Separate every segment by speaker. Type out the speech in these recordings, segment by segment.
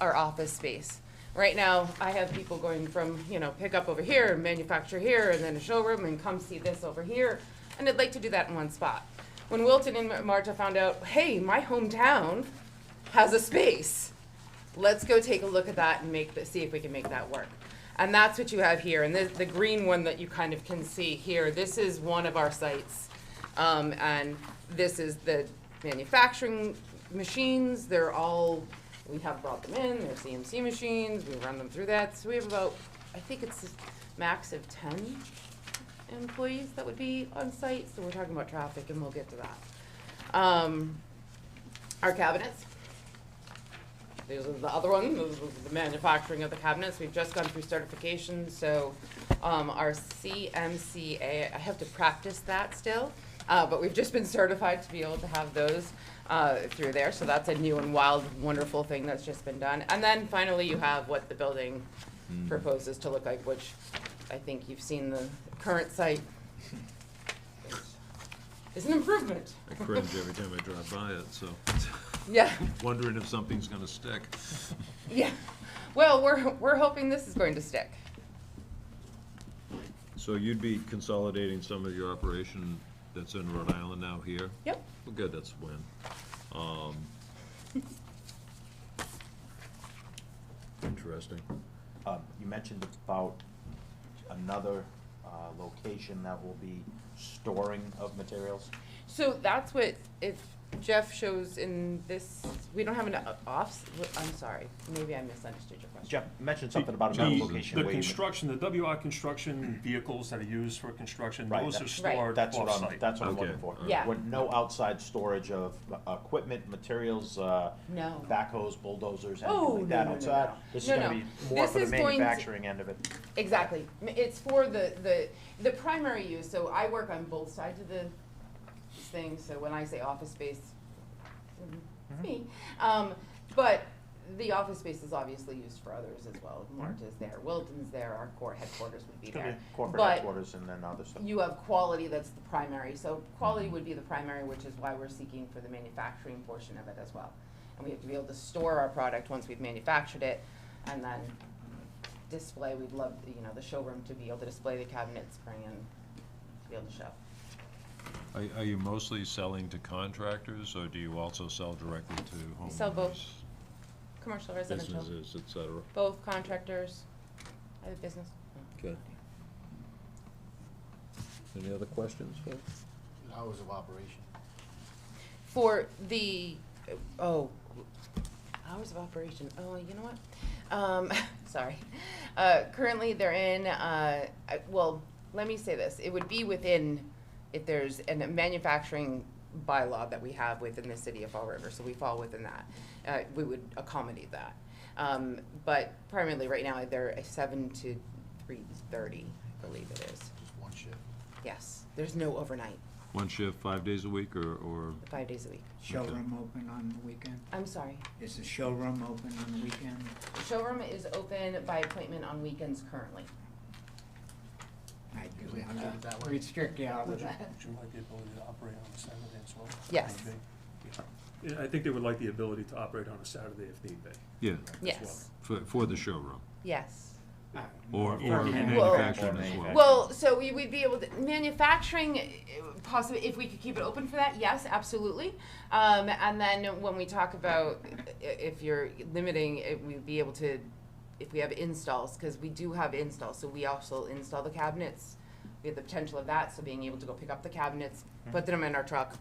Speaker 1: our office space. Right now, I have people going from, you know, pick up over here, and manufacture here, and then a showroom, and come see this over here, and I'd like to do that in one spot. When Wilton and Marta found out, hey, my hometown has a space, let's go take a look at that and make, the- see if we can make that work. And that's what you have here, and the, the green one that you kind of can see here, this is one of our sites. Um, and this is the manufacturing machines, they're all, we have brought them in, they're CMC machines, we run them through that, so we have about, I think it's a max of ten employees that would be on site, so we're talking about traffic and we'll get to that. Um, our cabinets, these are the other one, those are the manufacturing of the cabinets, we've just gone through certification, so, um, our CMCA, I have to practice that still, uh, but we've just been certified to be able to have those, uh, through there, so that's a new and wild, wonderful thing that's just been done. And then finally, you have what the building Hmm. proposes to look like, which I think you've seen the current site. It's an improvement,
Speaker 2: I cringe every time I drive by it, so
Speaker 1: yeah.
Speaker 2: wondering if something's gonna stick.
Speaker 1: Yeah. Well, we're, we're hoping this is going to stick.
Speaker 2: So you'd be consolidating some of your operation that's in Rhode Island now here?
Speaker 1: Yep.
Speaker 2: Well, good, that's a win. Um, Interesting.
Speaker 3: Um, You mentioned about another uh, location that will be storing of materials.
Speaker 1: So that's what, if Jeff shows in this, we don't have an o- offs, I'm sorry, maybe I misunderstood your question.
Speaker 3: Jeff mentioned something about another
Speaker 4: The-
Speaker 3: location.
Speaker 4: The
Speaker 3: where you-
Speaker 4: construction, the WR construction vehicles that are used for construction,
Speaker 3: Right,
Speaker 4: those
Speaker 3: that-
Speaker 4: are
Speaker 3: Right.
Speaker 4: stored
Speaker 3: That's what I'm,
Speaker 4: off-site.
Speaker 3: that's what I'm
Speaker 2: Okay,
Speaker 3: looking for.
Speaker 2: alright.
Speaker 1: Yeah.
Speaker 3: With No outside storage of uh, equipment, materials, uh,
Speaker 1: No.
Speaker 3: backhoes, bulldozers,
Speaker 1: Oh,
Speaker 3: anything
Speaker 1: no,
Speaker 3: like that
Speaker 1: no, no,
Speaker 3: outside.
Speaker 1: no.
Speaker 3: This is
Speaker 1: No,
Speaker 3: gonna
Speaker 1: no.
Speaker 3: be more
Speaker 1: This
Speaker 3: for the
Speaker 1: is going to-
Speaker 3: manufacturing end of it.
Speaker 1: Exactly. M- It's for the, the, the primary use, so I work on both sides of the thing, so when I say office space, mhm, it's me. Um, but the office space is obviously used for others as well. Marta's there, Wilton's there, our core headquarters would be
Speaker 3: It's gonna
Speaker 1: there.
Speaker 3: be corporate
Speaker 1: But-
Speaker 3: headquarters and then other stuff.
Speaker 1: you have quality that's the primary, so quality would be the primary, which is why we're seeking for the manufacturing portion of it as well. And we have to be able to store our product once we've manufactured it, and then display, we'd love, you know, the showroom to be able to display the cabinets, bring in, to be able to show.
Speaker 2: Are, are you mostly selling to contractors, or do you also sell directly to homeowners?
Speaker 1: We sell both. Commercial, residential,
Speaker 2: Businesses, et cetera?
Speaker 1: both contractors, other business.
Speaker 2: Okay. Any other questions, folks?
Speaker 5: Hours of operation.
Speaker 1: For the, oh, hours of operation, oh, you know what? Um, sorry. Uh, currently, they're in, uh, I- well, let me say this, it would be within, if there's a manufacturing bylaw that we have within the city of Fall River, so we fall within that. Uh, we would accommodate that. Um, but primarily, right now, they're a seven to three thirty, I believe it is.
Speaker 5: Just one shift.
Speaker 1: Yes, there's no overnight,
Speaker 2: One shift, five days a week, or, or?
Speaker 1: five days a week.
Speaker 6: Showroom open on the weekend?
Speaker 1: I'm sorry,
Speaker 6: Is the showroom open on the weekend?
Speaker 1: The showroom is open by appointment on weekends currently.
Speaker 6: I
Speaker 5: Usually
Speaker 6: do,
Speaker 5: have to do it that way.
Speaker 6: restrict the hours.
Speaker 4: Would you like the ability to operate on a Saturday as well?
Speaker 1: Yes.
Speaker 4: Maybe. Yeah. Yeah, I think they would like the ability to operate on a Saturday if need be.
Speaker 2: Yeah,
Speaker 1: Yes,
Speaker 2: for, for the showroom,
Speaker 1: yes.
Speaker 2: or, or
Speaker 6: For man-
Speaker 1: Well-
Speaker 2: manufacturing as well?
Speaker 1: Well, so we would be able to, manufacturing, eh, possibly, if we could keep it open for that, yes, absolutely. Um, and then when we talk about i- if you're limiting, it, we'd be able to, if we have installs, because we do have installs, so we also install the cabinets. We have the potential of that, so being able to go pick up the cabinets, put them in our truck,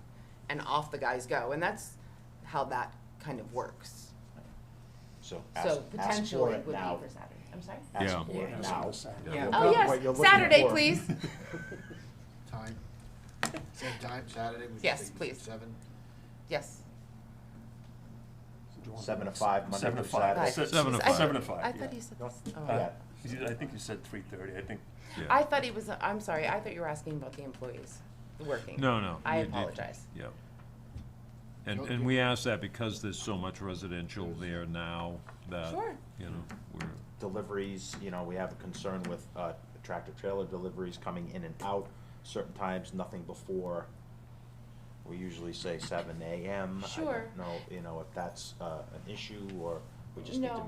Speaker 1: and off the guys go, and that's how that kind of works.
Speaker 3: So ask,
Speaker 1: So
Speaker 3: ask for
Speaker 1: potentially
Speaker 3: it
Speaker 1: would be
Speaker 3: now.
Speaker 1: for Saturday. I'm sorry?
Speaker 2: Yeah.
Speaker 3: Ask for it
Speaker 4: Ask on
Speaker 3: now.
Speaker 4: a Saturday.
Speaker 6: Yeah.
Speaker 1: Oh,
Speaker 3: What you're
Speaker 1: yes,
Speaker 3: looking
Speaker 1: Saturday,
Speaker 3: for.
Speaker 1: please.
Speaker 5: Time. Same time, Saturday, we
Speaker 1: Yes,
Speaker 5: just take
Speaker 1: please.
Speaker 5: seven.
Speaker 1: Yes.
Speaker 4: So do you want
Speaker 3: Seven to
Speaker 4: s-
Speaker 3: five, Monday
Speaker 4: Seven to
Speaker 3: through
Speaker 4: five.
Speaker 3: Saturday.
Speaker 4: Se-
Speaker 2: Seven to
Speaker 4: se-
Speaker 2: five.
Speaker 4: Seven to five,
Speaker 1: I
Speaker 4: yeah.
Speaker 1: thought you said,
Speaker 3: No.
Speaker 1: this- oh.
Speaker 3: Yeah.
Speaker 4: You did- I think you said three thirty, I think,
Speaker 2: Yeah.
Speaker 1: I thought he was, I'm sorry, I thought you were asking about the employees working.
Speaker 2: No, no.
Speaker 1: I
Speaker 2: you did-
Speaker 1: apologize.
Speaker 2: Yep. And,
Speaker 5: Nope,
Speaker 2: and
Speaker 5: yeah.
Speaker 2: we asked that because there's so much residential there now that,
Speaker 1: Sure.
Speaker 2: you know, we're,
Speaker 3: deliveries, you know, we have a concern with uh, tractor trailer deliveries coming in and out certain times, nothing before, we usually say seven AM. I
Speaker 1: Sure.
Speaker 3: don't know, you know, if that's uh, an issue or
Speaker 7: We just need to
Speaker 3: No.